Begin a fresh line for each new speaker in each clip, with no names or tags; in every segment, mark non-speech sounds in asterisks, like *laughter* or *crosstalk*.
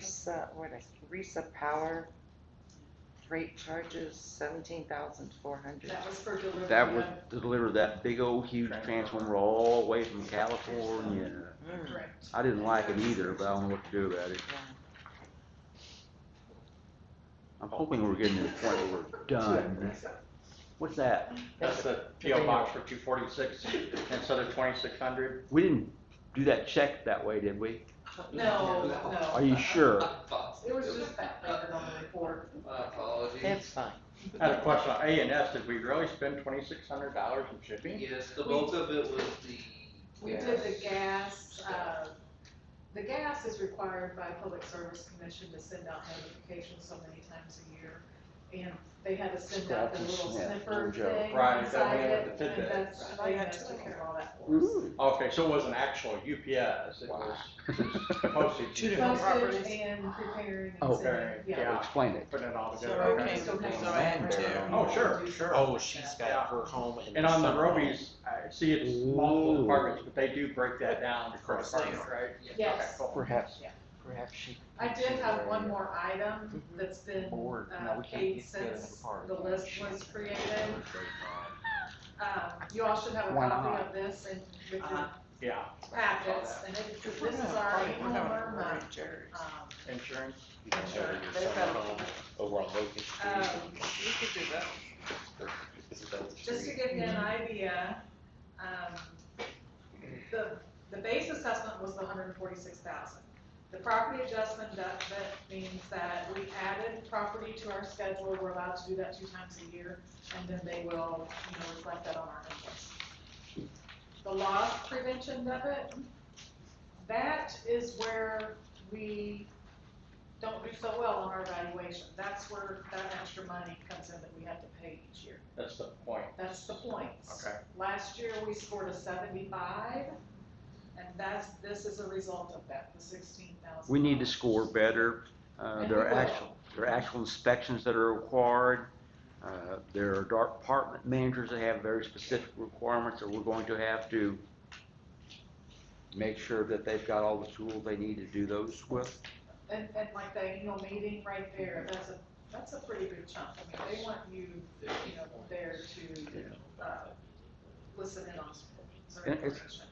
Teresa, what is Teresa Power? Freight charges seventeen thousand four hundred.
That was for delivery.
That was
of-
to deliver that big old huge transformer all the way from California.
Hmm.
Correct.
I didn't like it either, but I don't know what to do about it. I'm hoping we're getting to the point where we're done. What's that?
That's the PO box for two forty-six instead of twenty-six hundred.
We didn't do that check that way, did we?
No, no.
Are you sure?
*laughs* It was just that record on the report.
My apologies.
That's fine.
I had a question on A and S, did we really spend twenty-six hundred dollars in shipping?
Yes, the bulk of it was the.
We did the
gas.
gas, uh, the gas is required by Public Service Commission to send out notifications so many times a year. And they had to send out the
Scratches,
little
yeah,
sniffer
no joke.
thing
Right, that
inside
we had
it,
with the
and
tidbit.
that's, they had to take care of all that for us.
Ooh.
Okay, so it wasn't actual UPS, it was postage.
Two different-
Postage
Properties.
and preparing and
Oh.
sending, yeah.
Yeah.
Explain it.
Putting it all
So,
together.
okay, so
Yeah.
okay, so I
Land
have-
too.
Oh, sure, sure.
Oh, she's
Yeah.
got her home in.
And on the
summer home.
Robies, I see it's multiple
Ooh.
departments, but they do break that down
Of
per
course they
department, right?
Yes.
Okay, cool.
Perhaps,
Yeah.
perhaps she.
I did have one more item that's been
Board, no,
uh,
we can't
paid
get together in
since
the park.
the list was created. Um, you all should have a
Why
copy
not?
of this and with your
Uh-huh.
Yeah,
packets, and it- this is our annual Burma, um,
insurance.
insurance.
Your
They've
summer
got-
home Over on Locust Street.
Um,
Oh, We could do that.
This is Locust
Just to
Street.
give you an idea, um, the, the base assessment was the hundred and forty-six thousand. The property adjustment adjustment means that we added property to our schedule, we're allowed to do that two times a year, and then they will, you know, reflect that on our invoice. The loss prevention debit, that is where we don't do so well on our valuation. That's where that extra money comes in that we have to pay each year.
That's the point,
That's the points.
okay.
Last year, we scored a seventy-five, and that's, this is a result of that, the sixteen thousand.
We need to score better. Uh, there are actual, there are actual inspections that are required. Uh, there are department managers that have very specific requirements that we're going to have to make sure that they've got all the tools they need to do those with.
And, and like the annual meeting right there, that's a, that's a pretty big chunk. I mean, they want you, you know, there to, uh, listen in on certain
And it's-
information.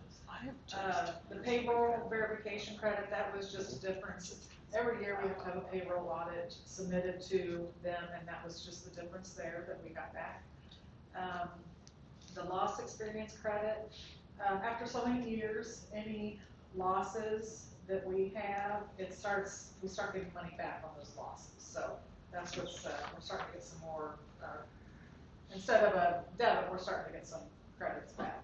Uh, the payroll verification credit, that was just a difference. Every year, we have to have a payroll audit submitted to them, and that was just the difference there that we got back. Um, the loss experience credit, um, after so many years, any losses that we have, it starts, we start getting money back on those losses. So that's what's, uh, we're starting to get some more, uh, instead of a debit, we're starting to get some credits back.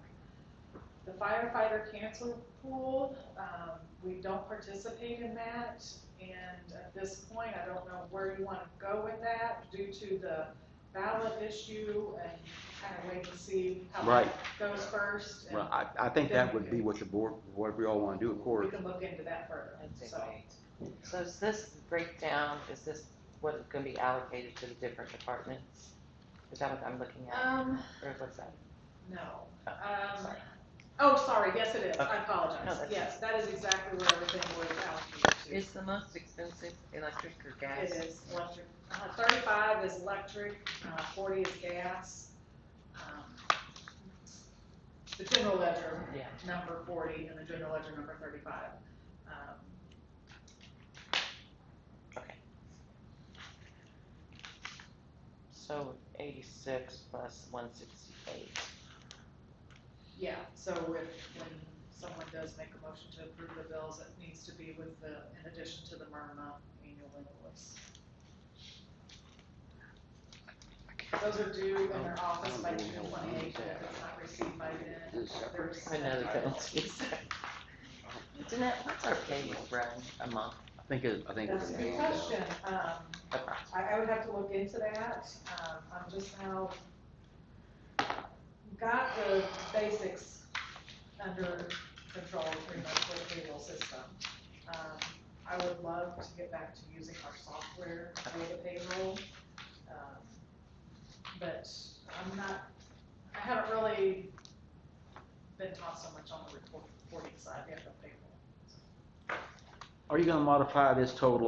The firefighter cancer pool, um, we don't participate in that. And at this point, I don't know where you want to go with that due to the ballot issue and kind of wait to see how
Right.
that goes first. and-
Well, I, I think that would be what the board, what we all want to do, of
we
course.
can look into that further, so.
So is this breakdown, is this what is gonna be allocated to the different departments? Is that what I'm looking at,
Um,
or what's that?
no,
Oh,
um,
sorry.
oh, sorry, yes it is, I
No,
apologize,
that's-
yes, that is exactly where everything was allocated
Is the most expensive electric or
to. It
gas?
is electric, uh, thirty-five is electric, uh, forty is gas. Um, The general ledger,
Yeah.
number forty, and the general ledger number thirty-five. Um,
So eighty-six plus one sixty-eight.
Yeah, so if, when someone does make a motion to approve the bills, it needs to be with the, in addition to the Myrna annual invoice. Those are due in their office by June twenty-eighth, and if it's not received by then,
Is it separate?
there's.
I know the penalty. Jeanette, what's our payroll run a month?
I think, it- I think.
That's a good question, um,
approximately?
I, I would have to look into that, um, I'm just now got the basics under control pretty much with the payroll system. Um, I would love to get back to using our software for the payroll. um, But I'm not, I haven't really been taught so much on the report- reporting side yet of payroll.
Are you gonna modify this total